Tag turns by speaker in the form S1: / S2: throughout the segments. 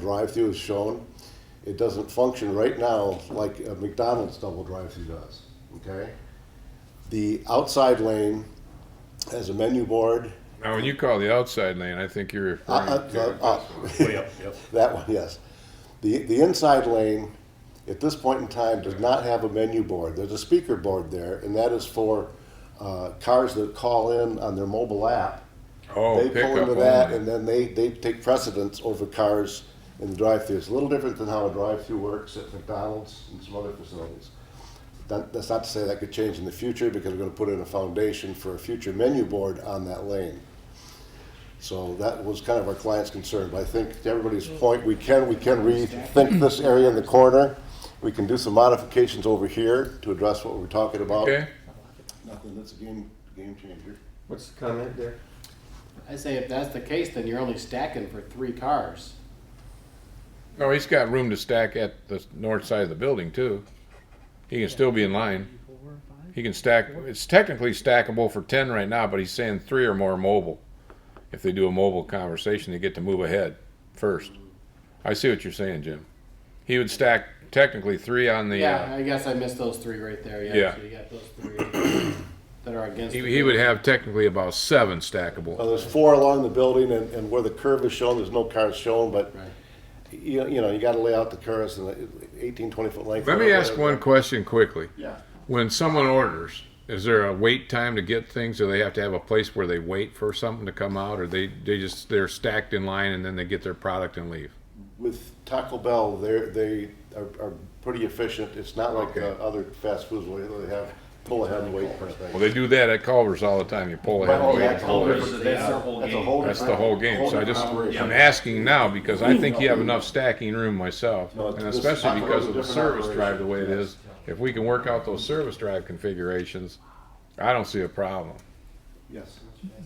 S1: drive-through is shown, it doesn't function right now like a McDonald's double drive-through does, okay? The outside lane has a menu board,
S2: Now, when you call the outside lane, I think you're referring
S1: Uh, uh,
S2: to
S1: uh, uh.
S3: Way up, yep.
S1: that one, yes. The, the inside lane, at this point in time, does not have a menu board. There's a speaker board there, and that is for uh, cars that call in on their mobile app.
S2: oh
S1: they pull
S2: pickup
S1: into that,
S2: only.
S1: and then they, they take precedence over cars in the drive-through. It's a little different than how a drive-through works at McDonald's and some other facilities. That, that's not to say that could change in the future because we're going to put in a foundation for a future menu board on that lane. So that was kind of our client's concern. But I think to everybody's point, we can we can rethink this area in the corner. We can do some modifications over here to address what we're talking about.
S2: okay.
S1: Nothing that's a game game changer.
S4: What's the comment there?
S5: I say if that's the case, then you're only stacking for three cars.
S2: Oh, he's got room to stack at the north side of the building too. He can still be in line. He can stack. It's technically stackable for ten right now, but he's saying three or more mobile. If they do a mobile conversation, they get to move ahead first. I see what you're saying, Jim. He would stack technically three on the.
S5: Yeah,
S2: Uh,
S5: I guess I missed those three right there. Yeah,
S2: Yeah.
S5: so you got those three that are against.
S2: he,
S5: the
S2: he would have technically about seven stackable.
S1: Well, there's four along the building, and, and where the curve is shown, there's no cars shown, but,
S5: Right.
S1: you, you know, you gotta lay out the curves and the eighteen, twenty foot length.
S2: Let me ask one question quickly.
S1: Yeah.
S2: When someone orders, is there a wait time to get things? Do they have to have a place where they wait for something to come out, or they they just they're stacked in line and then they get their product and leave?
S1: With Taco Bell, they're, they are, are pretty efficient, it's not like uh, other fast foods where they have pull ahead and wait for
S2: Well,
S1: things.
S2: they do that at Culver's all the time. You pull ahead.
S1: Well,
S2: and
S1: oh, yeah,
S2: wait.
S1: Culver's,
S3: Culver's,
S1: they
S3: that's their
S1: are-
S3: whole
S1: that's a
S3: game.
S1: whole
S2: That's the
S1: different-
S2: whole game. So I
S1: different
S2: just
S1: operation.
S2: I'm asking now because I think you have enough stacking room myself,
S1: No, it's-
S2: and
S1: this
S2: especially
S1: Taco Bell's
S2: because
S1: a
S2: of the
S1: different
S2: service
S1: operation.
S2: drive the way it is. If we can work out those service drive configurations, I don't see a problem.
S1: Yes.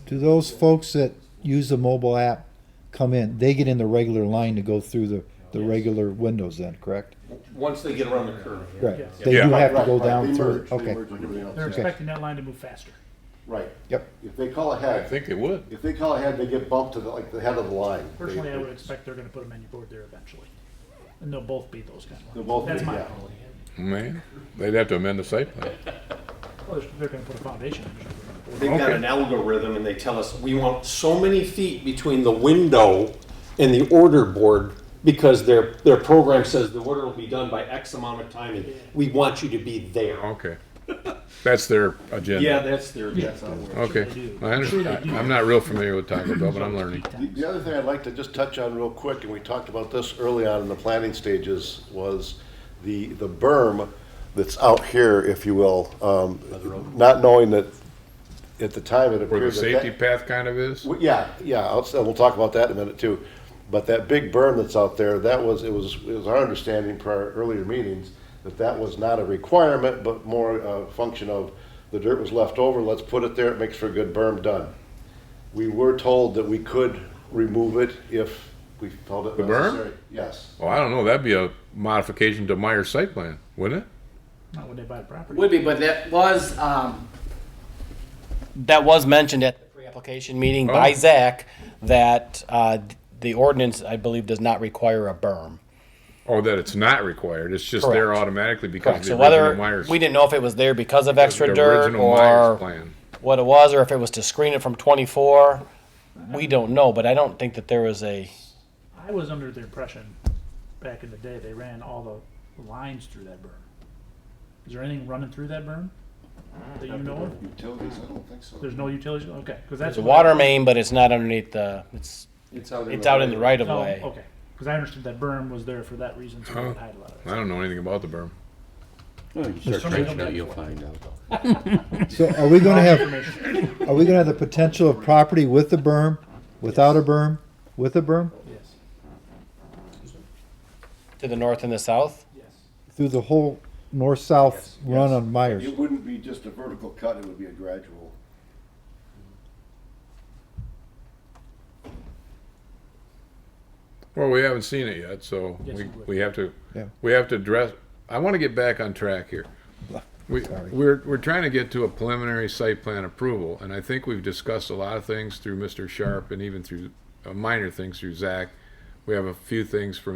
S6: Do those folks that use the mobile app come in, they get in the regular line to go through the, the regular windows then, correct?
S4: Once they get around the curve.
S6: Right, they do
S2: Yeah.
S6: have to
S1: Right,
S6: go
S1: right, they
S6: down through,
S1: merge, they
S6: okay,
S1: merge with everything else.
S7: They're
S6: Okay.
S7: expecting that line to move faster.
S1: Right,
S6: yep.
S1: if they call
S2: I
S1: ahead,
S2: think they would.
S1: if they call ahead, they get bumped to the, like, the head of the line.
S7: Personally, I
S1: They-
S7: would expect they're gonna put a menu board there eventually. And they'll both be those kind of
S1: They'll
S7: lines.
S1: both be,
S7: That's my
S1: yeah.
S7: call.
S2: Man, they'd have to amend the site plan.
S7: Well, they're- they're gonna put a foundation. in, they're just gonna put a board.
S4: They've got
S2: Okay.
S4: an algorithm and they tell us, we want so many feet between the window and the order board because their, their program says the order will be done by X amount of time and we want you to be there.
S2: Okay. That's their agenda.
S4: Yeah, that's their, that's how it works.
S2: Okay. I understand. I'm not real familiar with Taco Bell, but I'm learning.
S1: The- The other thing I'd like to just touch on real quick, and we talked about this early on in the planning stages, was the, the berm that's out here, if you will, um, not knowing that at the time it
S2: Where the
S1: appeared that that.
S2: safety path kind of is?
S1: Well, Yeah, yeah, I'll, so we'll talk about that in a minute too. But that big berm that's out there, that was, it was, it was our understanding prior, earlier meetings, that that was not a requirement, but more a function of the dirt was left over, let's put it there, it makes for a good berm, done. We were told that we could remove it if we felt it
S2: The berm?
S1: necessary. Yes.
S2: Well, I don't know. That'd be a modification to Meyer's site plan, wouldn't it?
S7: Not when they buy the property.
S5: Would be, but that was, um, that was mentioned at the pre-application meeting by
S2: Oh.
S5: Zach, that, uh, the ordinance, I believe, does not require a berm.
S2: Or that it's not required. It's just there
S5: Correct.
S2: automatically because of
S5: Correct,
S2: the
S5: so
S2: original
S5: whether,
S2: Meyer's.
S5: we didn't know if it was there because of
S2: the
S5: extra dirt
S2: original Meyer's
S5: or
S2: plan.
S5: what it was, or if it was to screen it from twenty-four. We don't know, but I don't think that there was a,
S7: I was under the impression, back in the day, they ran all the lines through that berm. Is there anything running through that berm? That you know of?
S1: Utilities, I don't think so.
S7: There's no utilities, okay, cause
S5: it's
S7: that's.
S5: a
S7: what I-
S5: water main, but it's not underneath the, it's,
S4: It's out
S5: it's out in the right of
S7: Oh,
S5: way.
S7: okay, cause I understood that berm was there for that reason, so they could hide a lot of it.
S2: I don't know anything about the berm.
S7: There's so many different
S3: find out.
S6: So are we gonna have,
S7: information.
S6: are we gonna have the potential of property with the berm, without a berm, with a berm,
S7: Yes,
S5: To the north and the south?
S7: yes.
S6: through the whole north-south run on Myers?
S1: wouldn't be just a vertical cut, it would be a gradual.
S2: Well, we haven't seen it yet, so
S7: Yes,
S2: we,
S7: it would.
S2: we have to,
S6: Yeah.
S2: we have to address, I want to get back on track here. We,
S6: Sorry.
S2: we're, we're trying to get to a preliminary site plan approval, and I think we've discussed a lot of things through Mr. Sharp and even through, uh, minor things through Zach. We have a few things from